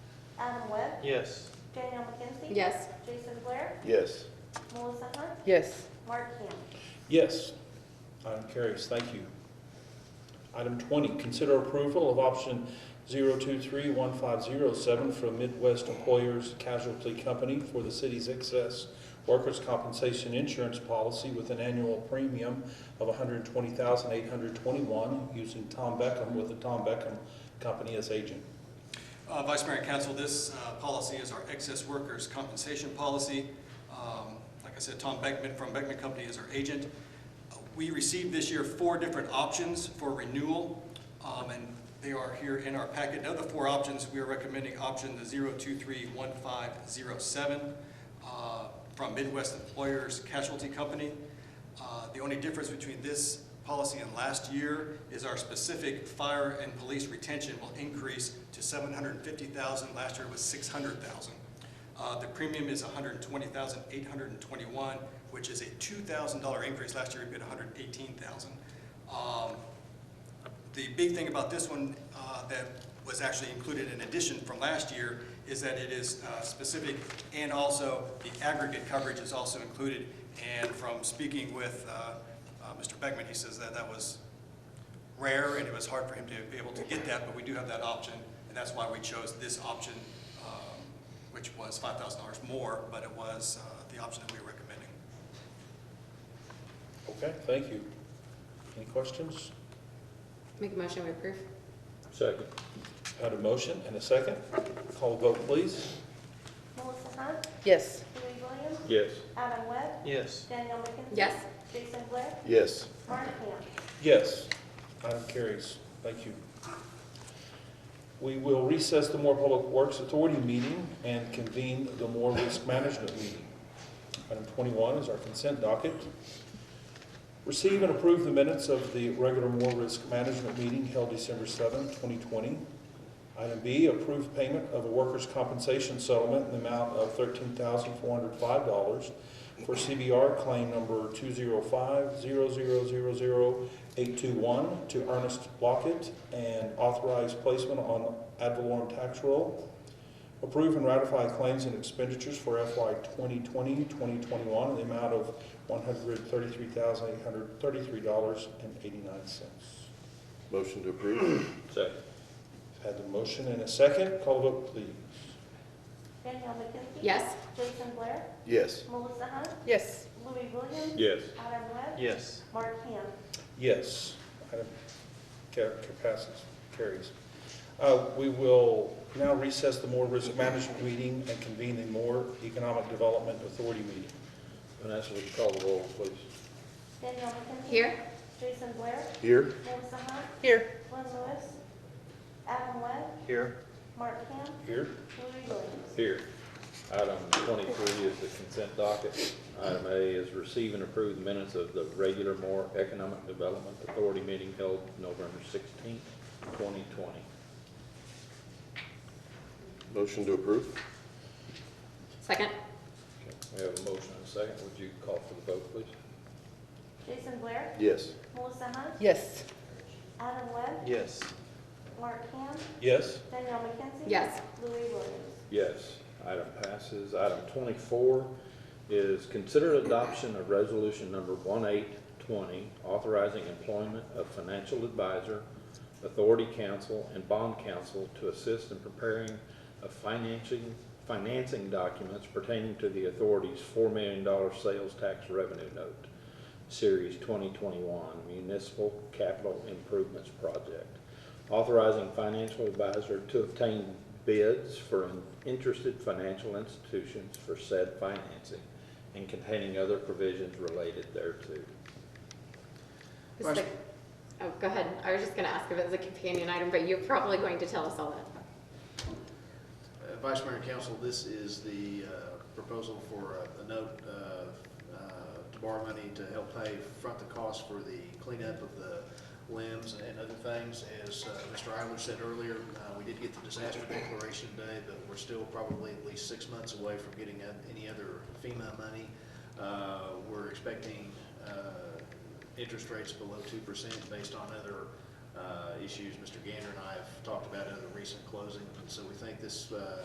Smith. Yes. Danielle McKenzie. Yes. Jason Blair. Yes. Melissa Hunt. Yes. Mark Ham. Yes. Item carries, thank you. Item 20, consider approval of option 0231507 from Midwest Employers Casualty Company for the city's excess workers' compensation insurance policy with an annual premium of $120,821 using Tom Beckham with the Tom Beckham Company as agent. Uh, Vice Mayor and Council, this uh, policy is our excess workers' compensation policy. Um, Like I said, Tom Beckman from Beckman Company is our agent. Uh, We received this year four different options for renewal, um, and they are here in our packet. Of the four options, we are recommending option the 0231507 uh, from Midwest Employers Casualty Company. Uh, The only difference between this policy and last year is our specific fire and police retention will increase to seven hundred and fifty thousand, last year it was six hundred thousand. Uh, the premium is $120,821, which is a two thousand dollar increase, last year we paid $118,000. Um, the big thing about this one uh, that was actually included in addition from last year is that it is uh, specific, and also the aggregate coverage is also included. And from speaking with uh, uh, Mr. Beckman, he says that that was rare, and it was hard for him to be able to get that, but we do have that option, and that's why we chose this option, um, which was $5,000 more, but it was uh, the option that we were recommending. Okay, thank you. Any questions? Make a motion, we approve. Second. Had a motion and a second. Call the vote, please. Melissa Hunt. Yes. Louis Williams. Yes. Adam Webb. Yes. Danielle McKenzie. Yes. Jason Blair. Yes. Mark Ham. Yes, item carries. Thank you. We will recess the Moore Public Works Authority meeting and convene the Moore Risk Management meeting. Item 21 is our consent docket. Receive and approve the minutes of the regular Moore Risk Management meeting held December 7, 2020. Item B, approve payment of a workers' compensation settlement in the amount of $13,405 for CBR claim number 205-00000821 to Ernest Lockett and authorize placement on ad valorem tax roll. Approve and ratify claims and expenditures for FY 2020, 2021 in the amount of $133,833.89. Motion to approve. Second. Had the motion and a second. Call the vote, please. Danielle McKenzie. Yes. Jason Blair. Yes. Melissa Hunt. Yes. Louis Williams. Yes. Adam Webb. Yes. Mark Ham. Yes. Item ca- passes, carries. Uh, We will now recess the Moore Risk Management meeting and convene the Moore Economic Development Authority meeting. Vanessa, would you call the roll, please? Danielle McKenzie. Here? Jason Blair. Here. Melissa Hunt. Here. Glenn Lewis. Adam Webb. Here. Mark Ham. Here? Louis Williams. Here. Item twenty-three is the consent docket. Item A is receive and approve the minutes of the regular Moore Economic Development Authority meeting held November sixteenth, twenty twenty. Motion to approve. Second? We have a motion and a second. Would you call for the vote, please? Jason Blair. Yes. Melissa Hunt. Yes. Adam Webb. Yes. Mark Ham. Yes? Danielle McKenzie. Yes. Louis Williams. Yes. Item passes. Item twenty-four is consider adoption of resolution number one-eight-twenty, authorizing employment of financial advisor, authority counsel, and bond counsel to assist in preparing of financing, financing documents pertaining to the authority's four million dollar sales tax revenue note, series twenty-twenty-one municipal capital improvements project authorizing financial advisor to obtain bids for interested financial institutions for said financing and containing other provisions related thereto. Is the- Oh, go ahead. I was just gonna ask if it's a companion item, but you're probably going to tell us all that. Uh, Vice Mayor and Council, this is the uh, proposal for a- a note uh, uh, to borrow money to help pay front the cost for the cleanup of the limbs and other things. As uh, Mr. Eiler said earlier, uh, we did get the disaster declaration today, but we're still probably at least six months away from getting uh, any other FEMA money. Uh, We're expecting uh, interest rates below two percent based on other uh, issues. Mr. Gander and I have talked about other recent closings, and so we think this uh,